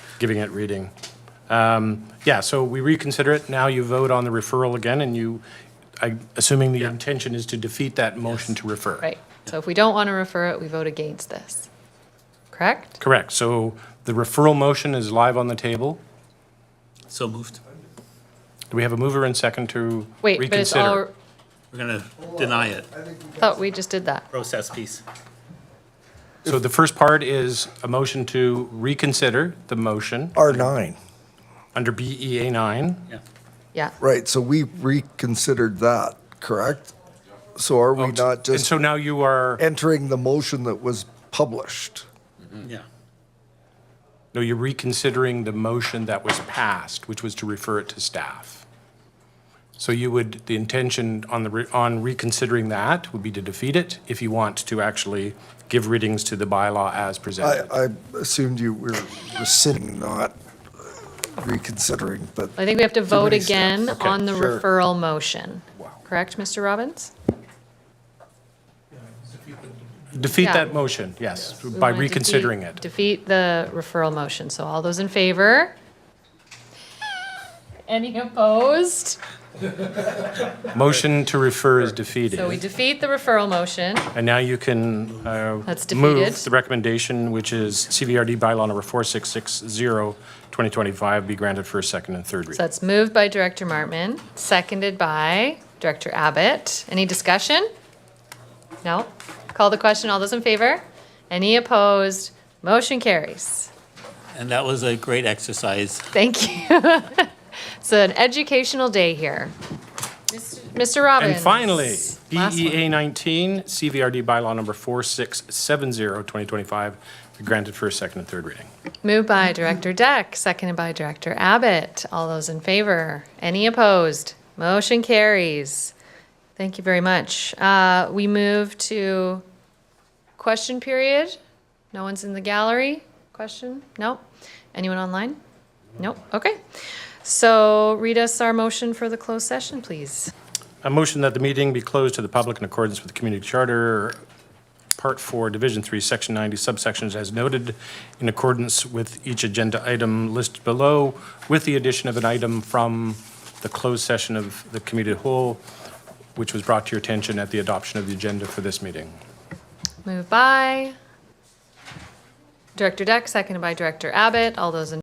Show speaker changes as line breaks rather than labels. giving it reading. Um, Yeah, so we reconsider it. Now you vote on the referral again, and you, I- assuming the intention is to defeat that motion to refer.
Right. So if we don't want to refer it, we vote against this. Correct?
Correct. So the referral motion is live on the table.
So moved.
Do we have a mover and second to
Wait, but it's all,
reconsider?
We're gonna deny it.
thought we just did that.
Process piece.
So the first part is a motion to reconsider the motion
R9,
under E BEA 9.
Yeah.
Yeah.
right, so we reconsidered that, correct? So are we not
And
just
so now you are,
entering the motion that was published?
Yeah.
no, you're reconsidering the motion that was passed, which was to refer it to staff. So you would, the intention on the, re- on reconsidering that would be to defeat it if you want to actually give readings to the bylaw as
I,
presented.
I assumed you were rescinding, not reconsidering, but
I think we have to vote
many steps.
again
Okay,
on the
sure.
referral motion. Correct, Mr. Robbins?
Defeat
Yeah.
that motion, yes,
We
by
wanna defeat-
reconsidering it.
Defeat the referral motion. So all those in favor? Any opposed?
Motion to refer is defeated.
So we defeat the referral motion.
And now you can uh,
That's defeated.
move the recommendation, which is CVRD bylaw number 4660, 2025, be granted for a second and third
So
reading.
that's moved by Director Martman, seconded by Director Abbott. Any discussion? No? Call the question. All those in favor? Any opposed? Motion carries.
And that was a great exercise.
Thank you. It's an educational day here. Mr. Robbins.
And finally, E
Last one.
BEA 19, CVRD bylaw number 4670, 2025, be granted for a second and third reading.
Moved by Director Deck, seconded by Director Abbott. All those in favor? Any opposed? Motion carries. Thank you very much. Uh, We move to question period. No one's in the gallery? Question? No? Anyone online? Nope. Okay. So read us our motion for the closed session, please.
A motion that the meeting be closed to the public in accordance with the Community Charter, Part 4, Division 3, Section 90, subsections as noted, in accordance with each agenda item listed below, with the addition of an item from the closed session of the committee at whole, which was brought to your attention at the adoption of the agenda for this meeting.
Moved by Director Deck, seconded by Director Abbott. All those in